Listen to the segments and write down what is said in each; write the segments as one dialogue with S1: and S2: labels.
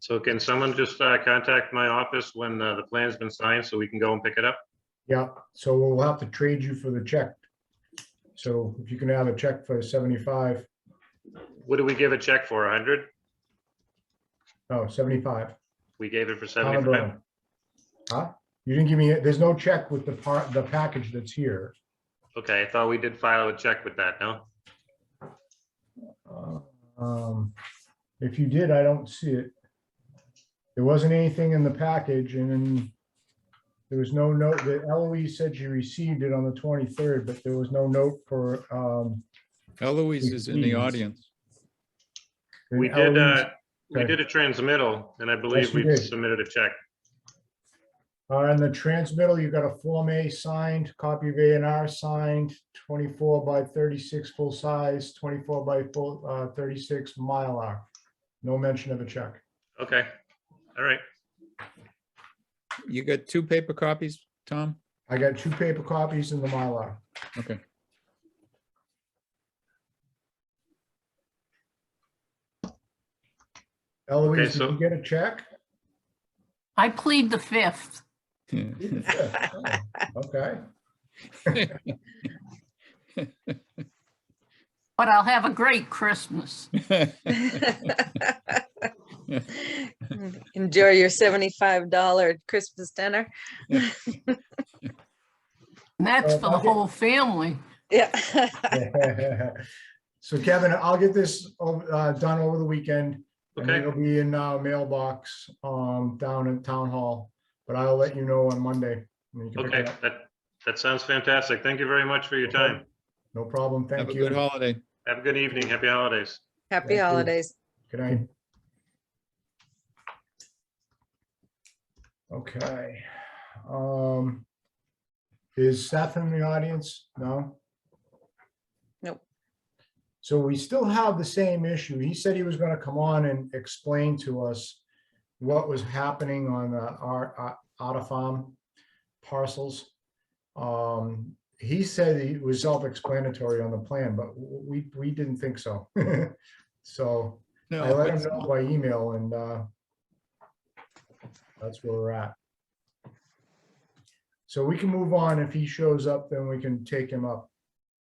S1: So can someone just uh, contact my office when uh, the plan's been signed so we can go and pick it up?
S2: Yeah, so we'll have to trade you for the check. So if you can have a check for seventy-five,
S1: What do we give a check for? A hundred?
S2: no, seventy-five.
S1: We gave it for
S2: Tom
S1: seventy-five?
S2: Brown. Huh? You didn't give me, there's no check with the part, the package that's here.
S1: Okay, I thought we did file a check with that, no?
S2: Uh, um, If you did, I don't see it. There wasn't anything in the package and then there was no note that Eloise E said she received it on the twenty-third, but there was no note for, um.
S3: Eloise is in the
S2: Please.
S3: audience.
S1: We did,
S2: Eloise-
S1: uh, we
S2: okay.
S1: did a transmittal and I
S2: Yes,
S1: believe
S2: we
S1: we
S2: did.
S1: submitted a check.
S2: Uh, in the transmittal, you got a Form A signed, copy of A and R signed, twenty-four by thirty-six full size, twenty-four by full, uh, thirty-six Mylar. No mention of a check.
S1: Okay, all right.
S3: You got two paper copies, Tom?
S2: I got two paper copies in the Mylar.
S3: Okay.
S2: Eloise, did
S1: so-
S2: you get a check?
S4: I plead the fifth.
S2: Yeah, Okay,
S4: But I'll have a great Christmas.
S5: Enjoy your seventy-five dollar Christmas dinner.
S4: And that's
S2: Uh,
S4: for the
S2: okay.
S4: whole family.
S5: Yeah.
S2: So Kevin, I'll get this ov- uh, done over the weekend. And
S1: Okay.
S2: it'll be in uh, mailbox um, down in Town Hall, but I'll let you know on Monday. when you can pick it
S1: Okay,
S2: up.
S1: that, that sounds fantastic. Thank you very much for your
S2: Okay.
S1: time.
S2: No problem.
S3: Have
S2: Thank
S3: a
S2: you.
S3: good holiday.
S1: Have a good evening. Happy holidays.
S2: Thank
S5: Happy
S2: you.
S5: holidays.
S2: Good night. Okay. um, Is Seth in the audience? No?
S5: Nope.
S2: So we still have the same issue. He said he was going to come on and explain to us what was happening on uh, our uh, Otter Farm parcels. Um, He said it was self-explanatory on the plan, but w- w- we, we didn't think so. So
S3: No,
S2: I let him
S3: it's-
S2: know by email and uh, that's where we're at. So we can move on. If he shows up, then we can take him up.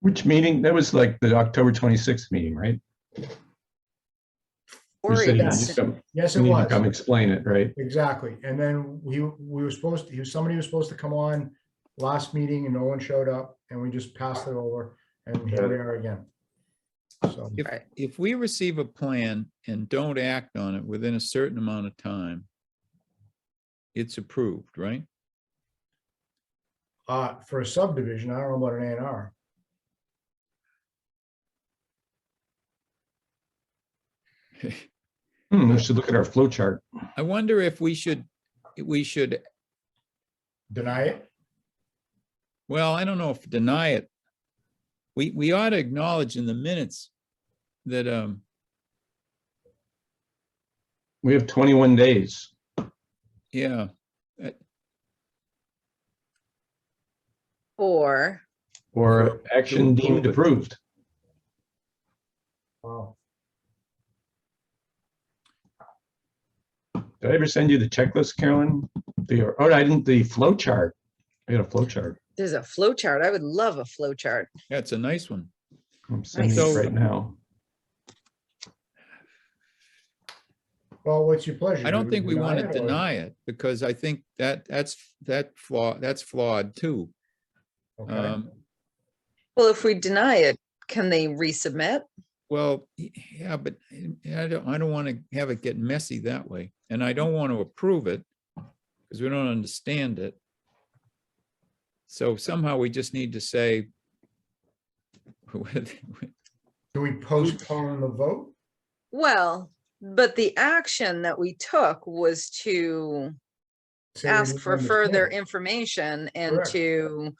S6: Which meeting? That was like the October 26th meeting, right? You
S5: Worry
S6: said you
S2: Yes.
S5: about
S6: just
S5: it.
S6: come-
S2: Yes,
S6: you
S2: it
S6: need to come
S2: was.
S6: explain it, right?
S2: Exactly. And then we, we were supposed to, he was- somebody was supposed to come on last meeting and no one showed up and we just passed it over and here we are again. So,
S3: If,
S5: Right.
S3: if we receive a plan and don't act on it within a certain amount of time, it's approved, right?
S2: uh, for a subdivision, I don't know about an A and R.
S6: Hmm, we should look at our flow chart.
S3: I wonder if we should, we should,
S2: Deny it?
S3: well, I don't know if deny it. We, we ought to acknowledge in the minutes that, um,
S6: We have 21 days.
S3: yeah,
S5: Or
S6: Or action deemed approved.
S2: Wow.
S6: Did I ever send you the checklist, Carolyn? The, oh, I didn't, the flow chart. I got a flow chart.
S5: there's a flow chart. I would love a flow chart.
S3: that's a nice one.
S6: I'm sending it
S3: Nice.
S6: right now.
S2: Well, what's your pleasure?
S3: I
S2: Do
S3: don't think we want to
S2: it or-
S3: deny it because I think that, that's, that flaw, that's flawed too.
S2: Okay.
S3: Um,
S5: Well, if we deny it, can they resubmit?
S3: Well, y- yeah, but eh, I- I don't, I don't want to have it get messy that way, and I don't want to approve it because we don't understand it. So somehow we just need to say
S2: Do we postpone the vote?
S5: Well, but the action that we took was to
S2: Say we
S5: ask
S2: didn't
S5: for further
S2: understand.
S5: information and
S2: Correct.
S5: to